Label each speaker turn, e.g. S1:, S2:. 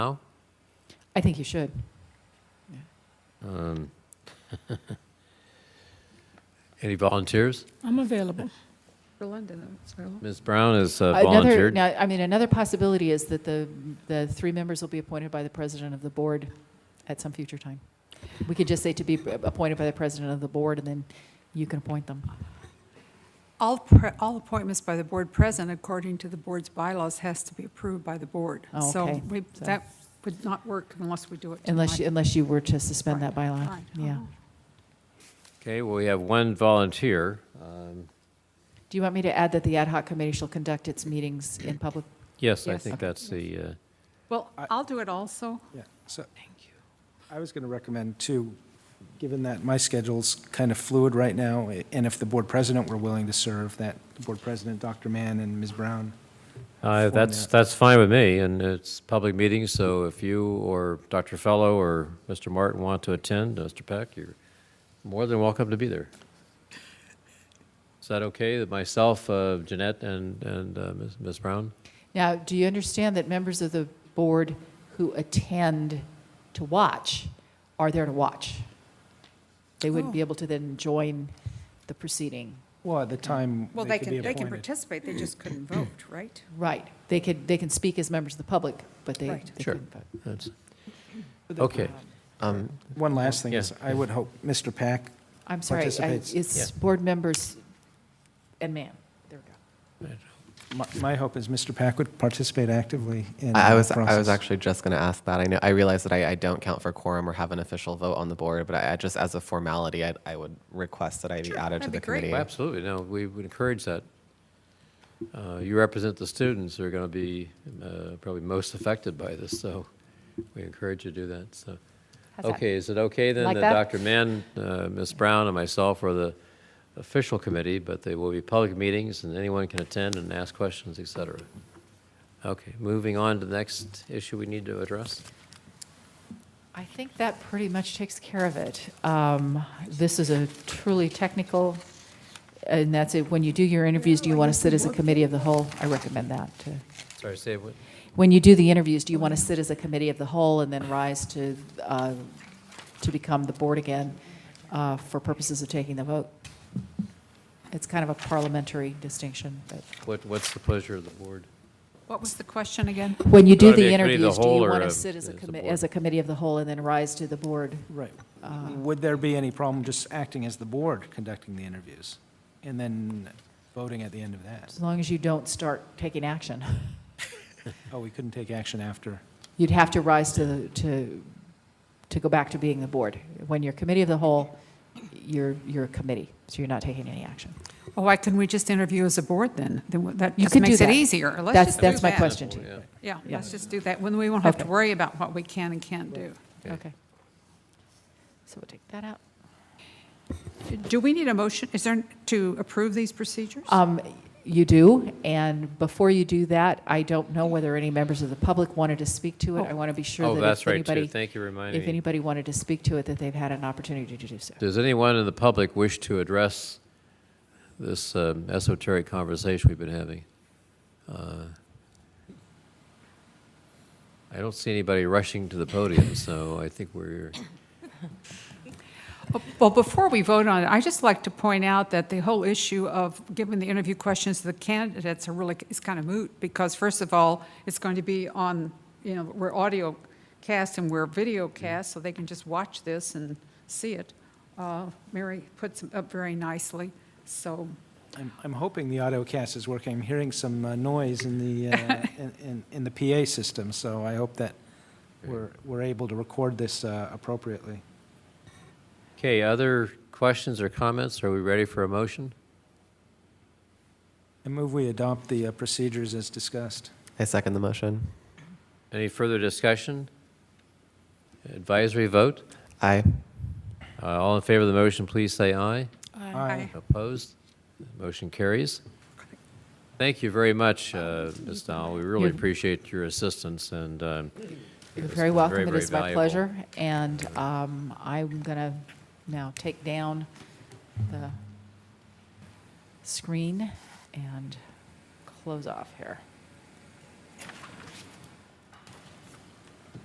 S1: I think you should.
S2: Um, Any volunteers?
S3: I'm available.
S4: For London, so.
S2: Ms. Brown has uh,
S1: Another,
S2: volunteered.
S1: now, I mean, another possibility is that the, the three members will be appointed by the president of the board at some future time. We could just say to be appointed by the president of the board, and then you can appoint them.
S4: All, pre- all appointments by the board president, according to the board's bylaws, has to be approved by the board.
S1: Oh,
S4: So
S1: okay.
S4: we,
S1: So-
S4: that would not work unless we do it
S1: Unless, you-
S4: tonight.
S1: unless you were to suspend that bylaw,
S4: Fine. Oh.
S1: yeah.
S2: Okay, well, we have one volunteer. Um,
S1: Do you want me to add that the ad hoc committee shall conduct its meetings in public?
S2: Yes, I
S4: Yes.
S2: think that's the, uh,
S4: Well,
S5: I-
S4: I'll do it also.
S5: Yeah, so. Thank you. I was going to recommend too, given that my schedule's kind of fluid right now, eh, and if the board president were willing to serve, that the board president, Dr. Mann and Ms. Brown.
S2: uh, that's,
S5: Format.
S2: that's fine with me, and it's public meeting, so if you or Dr. Fellow or Mr. Martin want to attend, Mr. Peck, you're more than welcome to be there. Is that okay, that myself, uh, Jeanette, and, and uh, Ms. Ms. Brown?
S1: Now, do you understand that members of the board who attend to watch are there to watch? They wouldn't be
S4: Oh.
S1: able to then join the proceeding.
S5: Well, at the time,
S4: Well,
S5: they
S4: they
S5: could be
S4: can, they can
S5: appointed.
S4: participate, they just couldn't vote, right?
S1: Right. They could, they can speak as members of the public, but they,
S4: Right.
S1: they
S2: Sure.
S1: couldn't vote.
S2: That's, okay.
S5: One last thing is,
S2: Yeah.
S5: I would hope Mr. Pack,
S1: I'm sorry, I-
S5: Participates.
S1: it's
S2: Yeah.
S1: board members and man. There we go.
S5: my- my hope is Mr. Pack would participate actively in the
S6: I I was, I
S5: process.
S6: was actually just going to ask that. I know, I realize that I, I don't count for quorum or have an official vote on the board, but I, I just, as a formality, I, I would request that I be
S4: Sure,
S6: added to
S4: that'd be
S6: the
S4: great.
S6: committee.
S2: Well, Absolutely, no, we would encourage that. Uh, You represent the students who are going to be uh, probably most affected by this, so we encourage you to do that, so.
S1: How's that?
S2: Okay, is it okay then
S1: Like
S2: that
S1: that?
S2: Dr. Mann, uh, Ms. Brown, and myself are the official committee, but they will be public meetings, and anyone can attend and ask questions, et cetera? Okay, moving on to the next issue we need to address.
S1: I think that pretty much takes care of it. Um, This is a truly technical, and that's it. When you do your interviews, do you want to sit as a committee of the whole? I recommend that to.
S2: Sorry, say what?
S1: When you do the interviews, do you want to sit as a committee of the whole and then rise to, uh, to become the board again uh, for purposes of taking the vote? It's kind of a parliamentary distinction, but
S2: What, what's the pleasure of the board?
S4: What was the question again?
S1: when you
S2: You
S1: do
S2: wanna be
S1: the
S2: a committee of the
S1: interviews, do
S2: whole
S1: you
S2: or
S1: want
S2: a-
S1: to sit as a
S2: as the
S1: committee,
S2: board?
S1: as a committee of the whole and then rise to the board? um,
S5: Right.
S4: Uh.
S5: Would there be any problem just acting as the board conducting the interviews and then voting at the end of that?
S1: As long as you don't start taking action.
S5: Oh, we couldn't take action after?
S1: You'd have to rise to, to, to go back to being the board. When you're committee of the whole, you're, you're a committee, so you're not taking any action.
S4: Oh, why couldn't we just interview as a board then? Then what- that
S1: You
S4: just
S1: could do
S4: makes it
S1: that.
S4: easier. Let's
S1: That's-
S4: just do
S1: that's my
S4: that.
S1: question. to you.
S2: Yeah.
S4: Yeah,
S1: Yeah.
S4: let's just do that, when we won't have to
S1: Okay.
S4: worry about what we can and can't do.
S1: Okay. So we'll take that out.
S4: Do we need a motion, is there, to approve these procedures?
S1: Um, You do, and before you do that, I don't know whether any members of the public wanted to speak to it. I want to be sure
S2: Oh,
S1: that
S2: that's
S1: if
S2: right, too.
S1: anybody,
S2: Thank you for reminding
S1: if
S2: me.
S1: anybody wanted to speak to it, that they've had an opportunity to do so.
S2: Does anyone in the public wish to address this um, esoteric conversation we've been having? Uh, I don't see anybody rushing to the podium, so I think we're,
S4: Well, before we vote on it, I'd just like to point out that the whole issue of giving the interview questions to the candidates are really, is kind of moot, because first of all, it's going to be on, you know, we're audio cast and we're video cast, so they can just watch this and see it. Uh, Mary puts it up very nicely, so,
S5: I'm, I'm hoping the AutoCast is working. I'm hearing some uh, noise in the, uh, in- in, in the PA system, so I hope that we're, we're able to record this uh, appropriately.
S2: okay, other questions or comments? Are we ready for a motion?
S5: I move we adopt the uh, procedures as discussed.
S6: I second the motion.
S2: Any further discussion? Advisory vote?
S6: Aye.
S2: Uh, All in favor of the motion, please say aye.
S4: Aye.
S2: Opposed? Motion carries. Thank you very much, uh, Ms. Dahl. We really
S1: You're-
S2: appreciate your assistance, and um,
S1: You're
S2: It's
S1: very
S2: been
S1: welcome.
S2: very,
S1: It
S2: very
S1: is my
S2: valuable.
S1: pleasure. And um, I'm going to now take down the screen and close off here.